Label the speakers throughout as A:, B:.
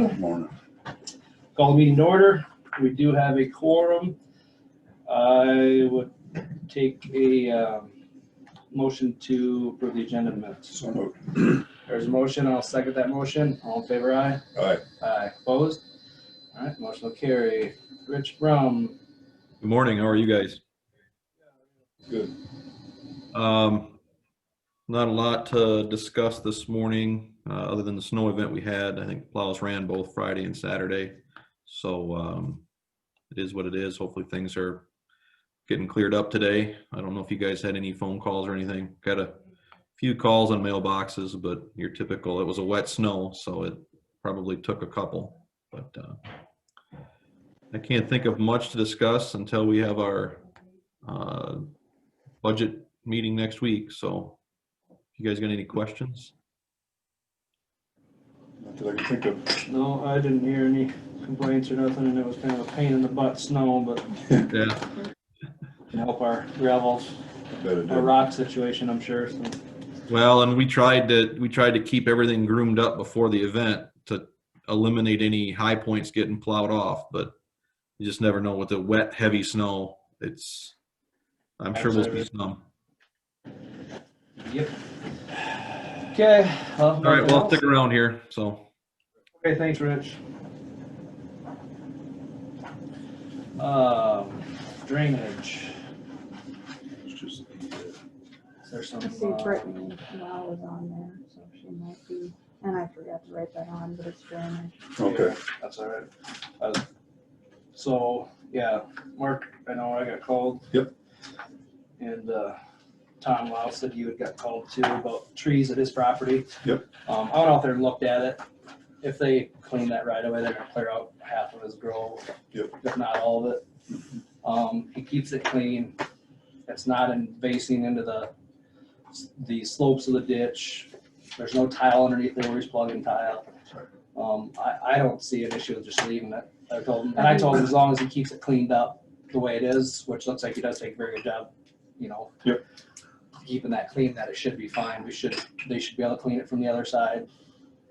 A: morning.
B: Call the meeting to order. We do have a quorum. I would take a um, motion to approve the agenda minutes.
A: So moved.
B: There's a motion, I'll second that motion. All in favor, aye?
A: Aye.
B: Aye, opposed? All right, motion will carry. Rich Brown,
C: Good morning, how are you guys?
A: Good.
C: Um, Not a lot to discuss this morning, uh, other than the snow event we had. I think plows ran both Friday and Saturday. So um, it is what it is. Hopefully, things are getting cleared up today. I don't know if you guys had any phone calls or anything. Got a few calls on mailboxes, but your typical, it was a wet snow, so it probably took a couple. But uh, I can't think of much to discuss until we have our uh, budget meeting next week, so you guys got any questions?
A: Not that I can think of.
B: no, I didn't hear any complaints or nothing, and it was kind of a pain in the butt snow, but
C: Yeah,
B: can help our gravel,
A: Better than-
B: our rock situation, I'm sure, so.
C: well, and we tried to, we tried to keep everything groomed up before the event to eliminate any high points getting plowed off, but you just never know with the wet, heavy snow, it's, I'm sure we'll see some.
B: Yep. Okay.
C: All right, well, stick around here, so.
B: Okay, thanks, Rich. Um, drainage,
A: It's just the,
B: is there some?
D: I see
B: uh,
D: Brittany Lau was on there, so she might be, and I forgot to write that on, but it's drainage.
A: uh, Okay,
B: That's all right. Uh, So, yeah, Mark, I know I got called.
A: Yep.
B: And uh, Tom Lau said you had got called too about trees at his property.
A: Yep.
B: Um, I went out there and looked at it. If they clean that right away, they're gonna clear out half of his grove.
A: Yep.
B: If not all of it. Um, he keeps it clean. It's not invasing into the, the slopes of the ditch. There's no tile underneath there where he's plugging tile.
A: Sorry.
B: Um, I, I don't see an issue with just leaving it. I told him, and I told him as long as he keeps it cleaned up the way it is, which looks like he does take a very good job, you know.
A: Yep.
B: Keeping that clean, that it should be fine. We should, they should be able to clean it from the other side.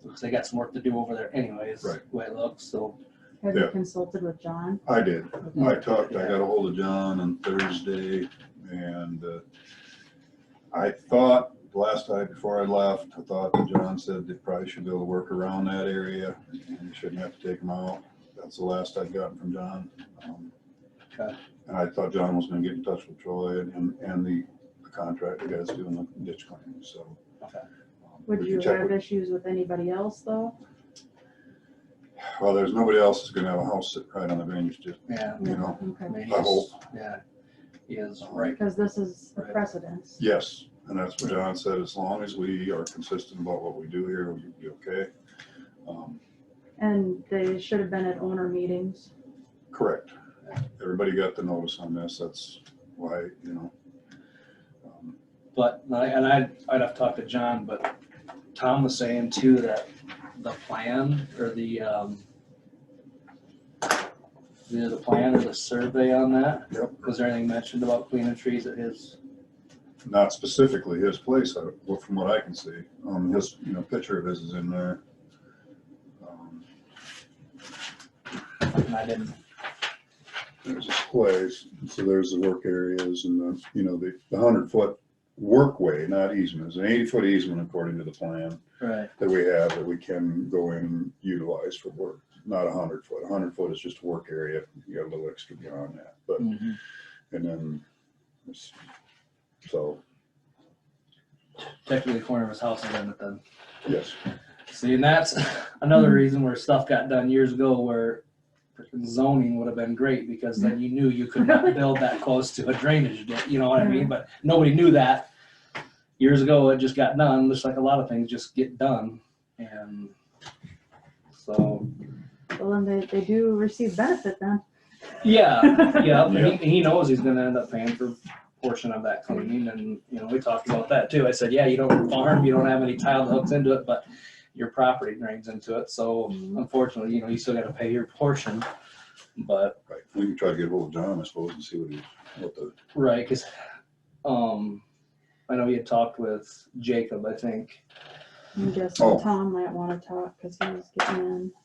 B: Because they got some work to do over there anyways, the
A: Right.
B: way it looks, so.
D: Have you
A: Yeah.
D: consulted with John?
A: I did. I talked, I got a hold of John on Thursday and uh, I thought, last night before I left, I thought that John said they probably should be able to work around that area and you shouldn't have to take them out. That's the last I'd gotten from John. Um,
B: Okay.
A: And I thought John was gonna get in touch with Troy and, and the contractor guys doing the ditch cleaning, so.
B: Okay.
A: um,
D: Would
A: we
D: you
A: can check
D: have
A: with-
D: issues with anybody else, though?
A: Well, there's nobody else that's gonna have a house sit right on the drainage ditch,
B: Yeah.
A: you know?
B: I
D: Okay,
B: mean,
A: I hope.
B: he's- Yeah, he is right.
D: because this is a
B: Right.
D: precedence.
A: Yes, and that's what John said, as long as we are consistent about what we do here, we'll be okay. Um,
D: And they should have been at owner meetings.
A: Correct. Everybody got the notice on this, that's why, you know. um,
B: But, and I- and I'd, I'd have talked to John, but Tom was saying too that the plan or the, um, the, the plan or the survey on that?
A: Yep.
B: Was there anything mentioned about cleaning trees at his?
A: Not specifically his place, I- well, from what I can see, um, his, you know, picture of his is in there. Um,
B: And I didn't,
A: There's his place, so there's the work areas and the, you know, the hundred foot workway, not easement, it's an eighty foot easement according to the plan.
B: right,
A: that we have that we can go in and utilize for work, not a hundred foot. A hundred foot is just work area. You got a little extra beyond that, but,
B: mhm.
A: and then, it's- so,
B: technically the corner of his house is in it then.
A: yes,
B: See, and that's another reason where stuff got done years ago where zoning would have been great because then you knew you could not build that close to a drainage, ditch, you know what I mean? But nobody knew that. Years ago, it just got done, just like a lot of things just get done. And so,
D: Well, then they, they do receive benefit then.
B: yeah, yeah, and he, he knows he's gonna end up paying for a portion of that cleaning and, you know, we talked about that too. I said, yeah, you don't farm, you don't have any tile that hooks into it, but your property drains into it, so unfortunately, you know, you still gotta pay your portion. But,
A: right. We can try to get hold of John, I suppose, and see what he, what the,
B: right, cause, um, I know you had talked with Jacob, I think,
D: I'm
A: Oh.
D: guessing Tom might want to talk, because he was getting in.